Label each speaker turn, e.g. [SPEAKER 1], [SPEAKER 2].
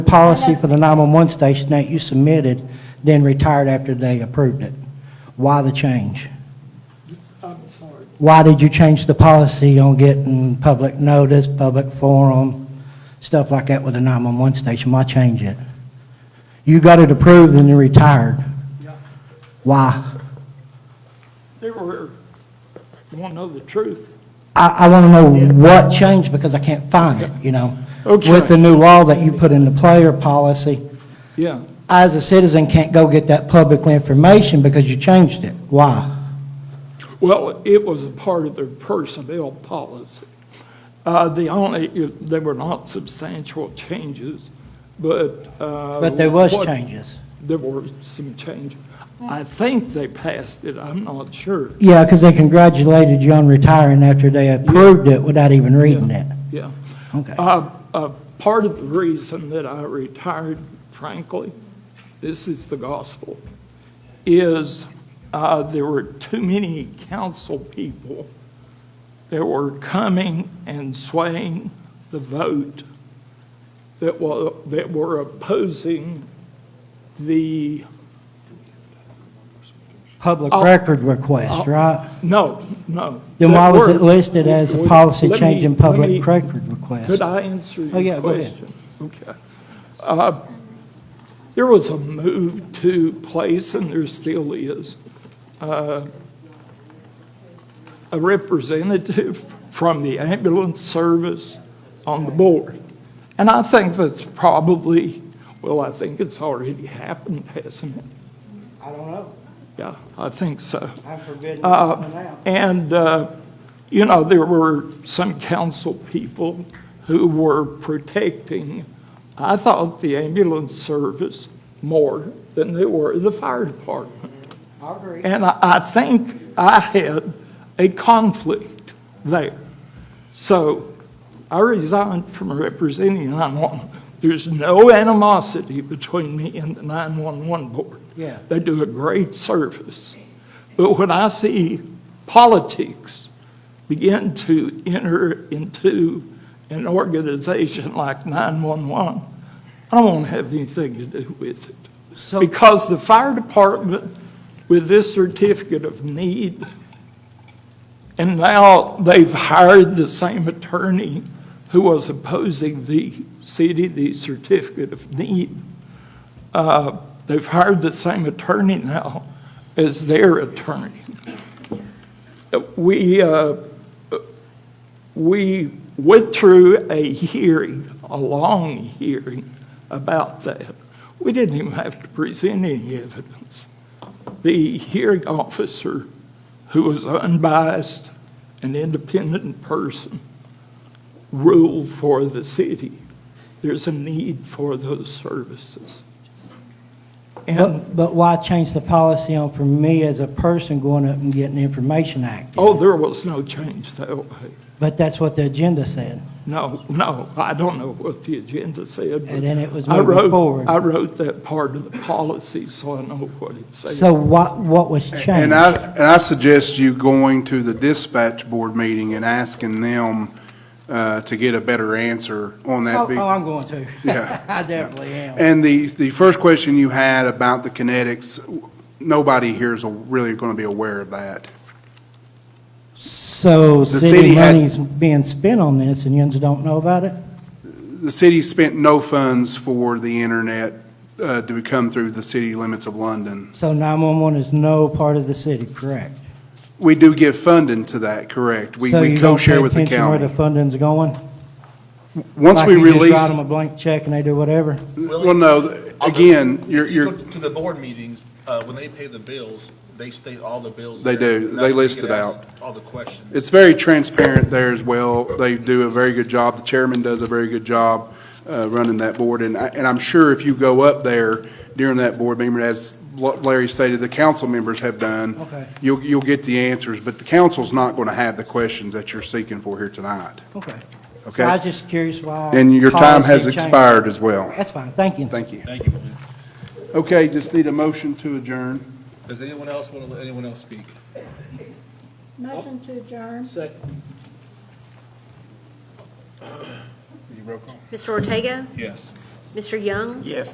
[SPEAKER 1] The policy for the 911 station that you submitted, then retired after they approved it. Why the change?
[SPEAKER 2] I'm sorry.
[SPEAKER 1] Why did you change the policy on getting public notice, public forum, stuff like that with the 911 station? Why change it? You got it approved and then retired.
[SPEAKER 2] Yeah.
[SPEAKER 1] Why?
[SPEAKER 2] They were, want to know the truth.
[SPEAKER 1] I, I want to know what changed because I can't find it, you know?
[SPEAKER 2] Okay.
[SPEAKER 1] With the new law that you put into play or policy,
[SPEAKER 2] Yeah.
[SPEAKER 1] I as a citizen can't go get that public information because you changed it. Why?
[SPEAKER 2] Well, it was a part of their personnel policy. Uh, The only, they were not substantial changes, but.
[SPEAKER 1] But
[SPEAKER 2] But
[SPEAKER 1] there was changes.
[SPEAKER 2] There were some changes. I think they passed it, I'm not sure.
[SPEAKER 1] Yeah, because they congratulated you on retiring after they approved it without even reading it.
[SPEAKER 2] Yeah.
[SPEAKER 1] Okay.
[SPEAKER 2] Uh, uh, Part of the reason that I retired, frankly, this is the gospel, is uh, there were too many council people that were coming and swaying the vote that wa, that were opposing the,
[SPEAKER 1] Public
[SPEAKER 2] I'll-
[SPEAKER 1] record request, right?
[SPEAKER 2] no, no.
[SPEAKER 1] Then why
[SPEAKER 2] that
[SPEAKER 1] was
[SPEAKER 2] were-
[SPEAKER 1] it listed as a
[SPEAKER 2] Wait,
[SPEAKER 1] policy
[SPEAKER 2] let me-
[SPEAKER 1] change in
[SPEAKER 2] let me-
[SPEAKER 1] public record request?
[SPEAKER 2] Could I answer
[SPEAKER 1] Oh, yeah,
[SPEAKER 2] your
[SPEAKER 1] go ahead.
[SPEAKER 2] question? Okay. Uh, There was a move to place, and there still is, uh, a representative from the ambulance service on the board. And I think that's probably, well, I think it's already happened, hasn't it?
[SPEAKER 1] I don't know.
[SPEAKER 2] Yeah, I think so.
[SPEAKER 1] I'm forbidden
[SPEAKER 2] Uh, And, uh, you know, there were some council people who were protecting, I thought, the ambulance service more than they were the fire department.
[SPEAKER 1] I agree.
[SPEAKER 2] And I I think I had a conflict there. So I resigned from representing 911. There's no animosity between me and the 911 board.
[SPEAKER 1] Yeah.
[SPEAKER 2] They do a great service. But when I see politics begin to enter into an organization like 911, I don't want to have anything to do with it.
[SPEAKER 1] So,
[SPEAKER 2] Because the fire department, with this certificate of need, and now they've hired the same attorney who was opposing the CDD certificate of need. Uh, They've hired the same attorney now as their attorney. Uh, We, uh, we went through a hearing, a long hearing about that. We didn't even have to present any evidence. The hearing officer, who was unbiased, an independent person, ruled for the city. There's a need for those services. And,
[SPEAKER 1] but, but why change the policy on for me as a person going up and getting the Information Act?
[SPEAKER 2] oh, there was no change that way.
[SPEAKER 1] But that's what the agenda said,
[SPEAKER 2] No, no, I don't know what the agenda said. but
[SPEAKER 1] and then it was
[SPEAKER 2] I
[SPEAKER 1] moving
[SPEAKER 2] wrote,
[SPEAKER 1] forward.
[SPEAKER 2] I wrote that part of the policy, so I know what it says.
[SPEAKER 1] So what, what was
[SPEAKER 3] And
[SPEAKER 1] changed?
[SPEAKER 3] I, and I suggest you going to the dispatch board meeting and asking them uh, to get a better answer on that.
[SPEAKER 1] Oh,
[SPEAKER 3] be-
[SPEAKER 1] oh, I'm going to.
[SPEAKER 3] Yeah.
[SPEAKER 1] I definitely am.
[SPEAKER 3] And the, the first question you had about the kinetics, nobody here is really going to be aware of that.
[SPEAKER 1] So
[SPEAKER 3] The
[SPEAKER 1] city
[SPEAKER 3] city had-
[SPEAKER 1] money's being spent on this and yous don't know about it?
[SPEAKER 3] The city spent no funds for the internet uh, to come through the city limits of London.
[SPEAKER 1] So 911 is no part of the city, correct?
[SPEAKER 3] We do give funding to that, correct? We, we co-share with the
[SPEAKER 1] So you don't pay attention where the
[SPEAKER 3] county.
[SPEAKER 1] funding's going?
[SPEAKER 3] Once
[SPEAKER 1] Like
[SPEAKER 3] we
[SPEAKER 1] you just write
[SPEAKER 3] release,
[SPEAKER 1] them a blank check and they do whatever?
[SPEAKER 3] well, no, again, you're,
[SPEAKER 4] If you
[SPEAKER 3] you're,
[SPEAKER 4] go To the board meetings, uh, when they pay the bills, they state all the bills.
[SPEAKER 3] They
[SPEAKER 4] there.
[SPEAKER 3] do.
[SPEAKER 4] That's
[SPEAKER 3] They
[SPEAKER 4] where you
[SPEAKER 3] list
[SPEAKER 4] can
[SPEAKER 3] it
[SPEAKER 4] ask All the questions.
[SPEAKER 3] It's very transparent there as well. They do a very good job. The chairman does a very good job uh, running that board. And I, and I'm sure if you go up there during that board meeting, as Larry stated, the council members have done,
[SPEAKER 1] Okay,
[SPEAKER 3] you'll, you'll get the answers. But the council's not going to have the questions that you're seeking for here tonight,
[SPEAKER 1] okay. So I
[SPEAKER 3] okay?
[SPEAKER 1] was just curious why.
[SPEAKER 3] And your time
[SPEAKER 1] policy
[SPEAKER 3] has
[SPEAKER 1] changed.
[SPEAKER 3] expired as well.
[SPEAKER 1] That's fine, thank you.
[SPEAKER 3] Thank you.
[SPEAKER 4] Thank you, William.
[SPEAKER 3] Okay, just need a motion to adjourn.
[SPEAKER 4] Does anyone else want to let anyone else speak?
[SPEAKER 5] Motion to adjourn.
[SPEAKER 4] Roll call.
[SPEAKER 6] Mr. Ortega?
[SPEAKER 4] Yes.
[SPEAKER 6] Mr. Young?
[SPEAKER 7] Yes.